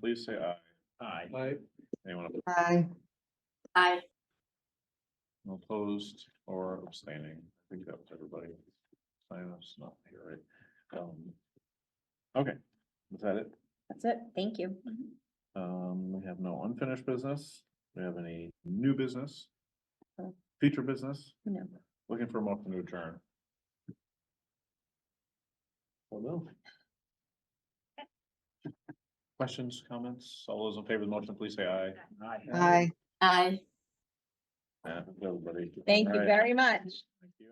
please say aye. Aye. I, Anyone Aye. Aye. opposed or abstaining? I think that was everybody. Signers not here, right? Um, Okay, is that it? That's it. Thank you. Um, we have no unfinished business. We have any new business? Uh. Future business? No. Looking for a motion to adjourn. Well, no. Questions, comments? All those in favor of the motion, please say aye. Aye. Aye. Uh, everybody. Thank All you right. very much. Thank you.